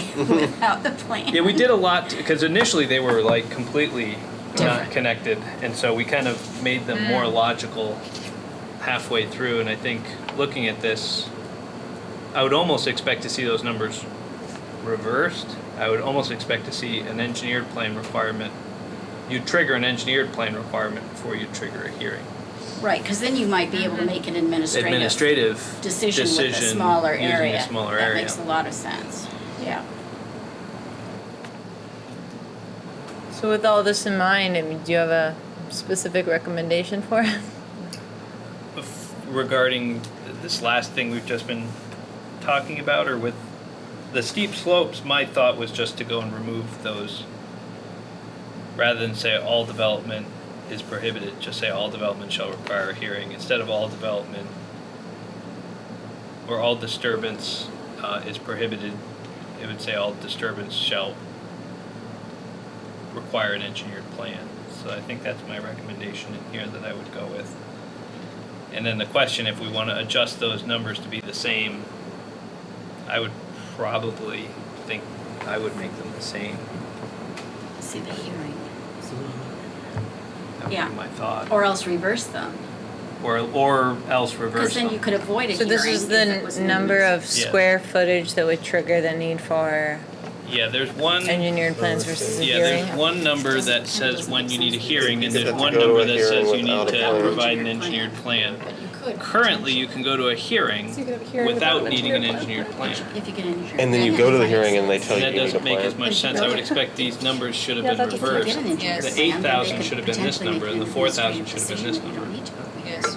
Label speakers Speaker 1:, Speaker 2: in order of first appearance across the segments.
Speaker 1: without the plan.
Speaker 2: Yeah, we did a lot because initially they were like completely not
Speaker 1: Different. Mm.
Speaker 2: connected, and so we kind of made them more logical halfway through. And I think looking at this, I would almost expect to see those numbers reversed. I would almost expect to see an engineered plan requirement. You trigger an engineered plan requirement before you trigger a hearing.
Speaker 1: Right, because then you might be able to make an administrative
Speaker 2: Administrative
Speaker 1: decision with a smaller
Speaker 2: using
Speaker 1: area.
Speaker 2: a smaller
Speaker 1: That
Speaker 2: area.
Speaker 1: makes a lot of sense, yeah.
Speaker 3: So with all this in mind, I mean, do you have a specific recommendation for it?
Speaker 2: bef- regarding th- this last thing we've just been talking about, or with the steep slopes, my thought was just to go and remove those. Rather than say all development is prohibited, just say all development shall require a hearing, instead of all development or all disturbance uh, is prohibited, it would say all disturbance shall require an engineered plan. So I think that's my recommendation in here that I would go with. And then the question, if we want to adjust those numbers to be the same, I would probably think I would make them the same.
Speaker 1: See the hearing,
Speaker 2: That would
Speaker 1: Yeah.
Speaker 2: be my thought.
Speaker 1: or else reverse them,
Speaker 2: Or, or else reverse
Speaker 1: because then you
Speaker 2: them.
Speaker 1: could avoid a
Speaker 3: So
Speaker 1: hearing.
Speaker 3: this is
Speaker 1: if it was
Speaker 3: the n- number
Speaker 1: moved.
Speaker 3: of
Speaker 2: Yeah.
Speaker 3: square footage that would trigger the need for
Speaker 2: Yeah, there's one, yeah,
Speaker 3: engineered plans versus a
Speaker 2: there's
Speaker 3: hearing?
Speaker 2: one number
Speaker 1: Doesn't-
Speaker 2: that says
Speaker 1: doesn't
Speaker 2: when
Speaker 1: make
Speaker 2: you need a
Speaker 1: sense.
Speaker 2: hearing, and
Speaker 4: Because
Speaker 2: there's
Speaker 4: if you
Speaker 2: one
Speaker 4: go to
Speaker 2: number
Speaker 4: a
Speaker 2: that
Speaker 4: hearing
Speaker 2: says you
Speaker 4: without
Speaker 2: need
Speaker 4: a
Speaker 2: to
Speaker 4: plan-
Speaker 2: provide an engineered plan.
Speaker 1: But you could.
Speaker 2: Currently, you can go to a hearing
Speaker 5: So you could have a hearing
Speaker 2: without
Speaker 5: without an
Speaker 2: needing an
Speaker 5: engineered
Speaker 2: engineered plan.
Speaker 1: If you get an engineered.
Speaker 4: And then you
Speaker 1: plan,
Speaker 4: go to the
Speaker 1: that makes
Speaker 4: hearing and they
Speaker 1: sense.
Speaker 4: tell
Speaker 2: And
Speaker 4: you
Speaker 2: that
Speaker 4: you need a
Speaker 2: doesn't make as
Speaker 4: plan.
Speaker 2: much sense. I would expect these numbers should have
Speaker 5: Yeah,
Speaker 2: been
Speaker 5: that doesn't
Speaker 1: If you
Speaker 2: reversed.
Speaker 1: get an engineered
Speaker 3: Yes.
Speaker 1: plan, then they
Speaker 2: 8,000
Speaker 1: could
Speaker 2: should have been this
Speaker 1: potentially
Speaker 2: number,
Speaker 1: make
Speaker 2: and
Speaker 1: an
Speaker 2: the 4,000
Speaker 1: administrative
Speaker 2: should have been this
Speaker 1: decision. You don't
Speaker 2: number.
Speaker 1: need to have a hearing.
Speaker 3: Yes.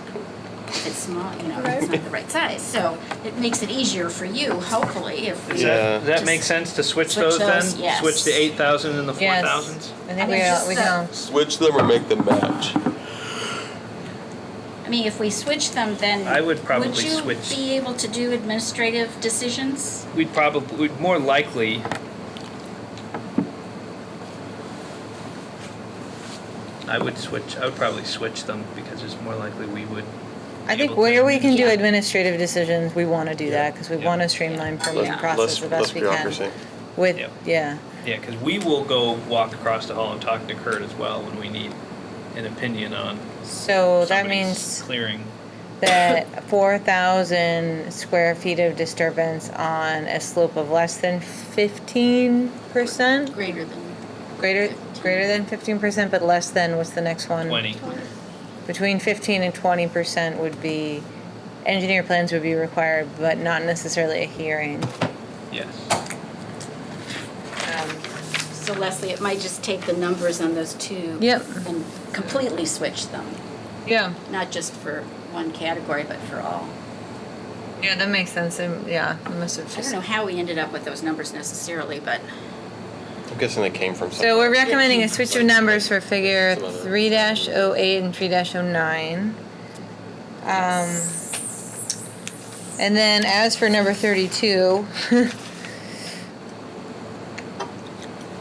Speaker 1: If it's small, you know,
Speaker 5: Right.
Speaker 1: it's not the right size, so it makes it easier for you, hopefully, if. we-
Speaker 2: Does
Speaker 4: Yeah.
Speaker 2: that, does that make
Speaker 1: Just
Speaker 2: sense to switch
Speaker 1: switch
Speaker 2: those then?
Speaker 1: those, yes.
Speaker 2: Switch the eight thousand and the four
Speaker 3: Yes.
Speaker 2: thousands?
Speaker 3: I
Speaker 1: I
Speaker 3: think we
Speaker 1: think
Speaker 3: all,
Speaker 1: just
Speaker 3: we
Speaker 1: the-
Speaker 3: can all
Speaker 4: Switch them or make them match.
Speaker 1: I mean, if we switch them, then.
Speaker 2: I would probably switch-
Speaker 1: Would you be able to do administrative decisions?
Speaker 2: We'd probably, we'd more likely. I would switch, I would probably switch them because it's more likely we would.
Speaker 3: I think
Speaker 2: able to
Speaker 3: where we can do
Speaker 1: Yeah.
Speaker 3: administrative decisions, we want to do that because we
Speaker 2: Yeah.
Speaker 3: want to streamline permitting
Speaker 1: Yeah.
Speaker 3: process
Speaker 4: Less,
Speaker 3: the
Speaker 4: less
Speaker 3: best we
Speaker 4: bureaucracy.
Speaker 3: can. With,
Speaker 2: Yep.
Speaker 3: yeah,
Speaker 2: Yeah, because we will go walk across the hall and talk to Kurt as well when we need an opinion on
Speaker 3: so that
Speaker 2: somebody's
Speaker 3: means
Speaker 2: clearing.
Speaker 3: that four thousand square feet of disturbance on a slope of less than fifteen percent?
Speaker 1: Greater than.
Speaker 3: Greater, greater than fifteen percent, but less than, what's the next one?
Speaker 2: Twenty.
Speaker 3: Between fifteen and twenty percent would be, engineer plans would be required, but not necessarily a hearing.
Speaker 2: Yes.
Speaker 3: Um,
Speaker 1: So Leslie, it might just take the numbers on those two.
Speaker 3: Yep.
Speaker 1: And completely switch them,
Speaker 3: Yeah,
Speaker 1: not just for one category, but for all.
Speaker 3: yeah, that makes sense, and, yeah, I must have
Speaker 1: I
Speaker 3: just.
Speaker 1: don't know how we ended up with those numbers necessarily, but
Speaker 4: I'm guessing they came from
Speaker 3: So
Speaker 4: somewhere.
Speaker 3: we're recommending a switch of numbers for figure
Speaker 4: Some other-
Speaker 3: three dash oh eight and three dash oh nine. Um, and then as for number thirty-two,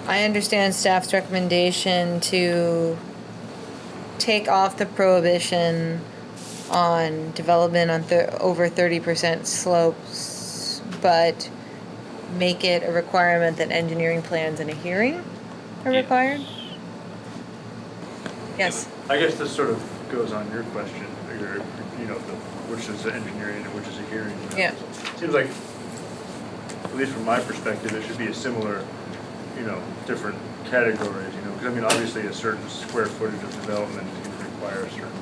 Speaker 3: I understand staff's recommendation to take off the prohibition on development on thir- over thirty percent slopes, but make it a requirement that engineering plans and a hearing are
Speaker 2: Yeah.
Speaker 3: required? Yes.
Speaker 6: I guess this sort of goes on your question, or, you know, the, which is the engineering and which is a hearing.
Speaker 3: Yeah.
Speaker 6: Seems like, at least from my perspective, it should be a similar, you know, different categories, you know, 'cause I mean, obviously a certain square footage of development is gonna require a certain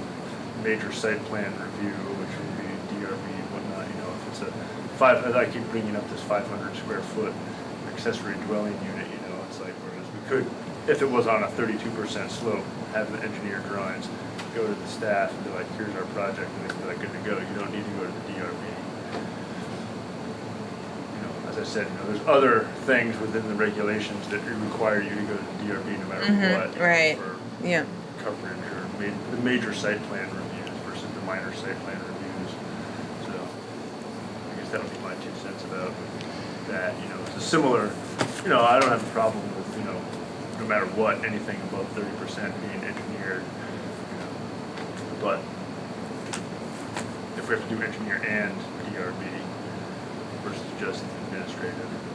Speaker 6: major site plan review, which would be DRB and whatnot, you know, if it's a five, and I keep bringing up this five hundred square foot accessory dwelling unit, you know, it's like, whereas we could, if it was on a thirty-two percent slope, have the engineer drawings, go to the staff and be like, here's our project, and they'd be like, good to go, you don't need to go to the DRB you know, as I said, you know, there's other things within the regulations that require you to go to the DRB no
Speaker 3: Mhm,
Speaker 6: matter what. you know,
Speaker 3: right.
Speaker 6: For
Speaker 3: Yeah.
Speaker 6: coverage or ma- the major site plan reviews versus the minor site plan reviews. So I guess that would be my two cents about that, you know, it's a similar, you know, I don't have a problem with, you know, no matter what, anything above thirty percent being engineered, you know. But if we have to do engineer and DRB versus just administrative,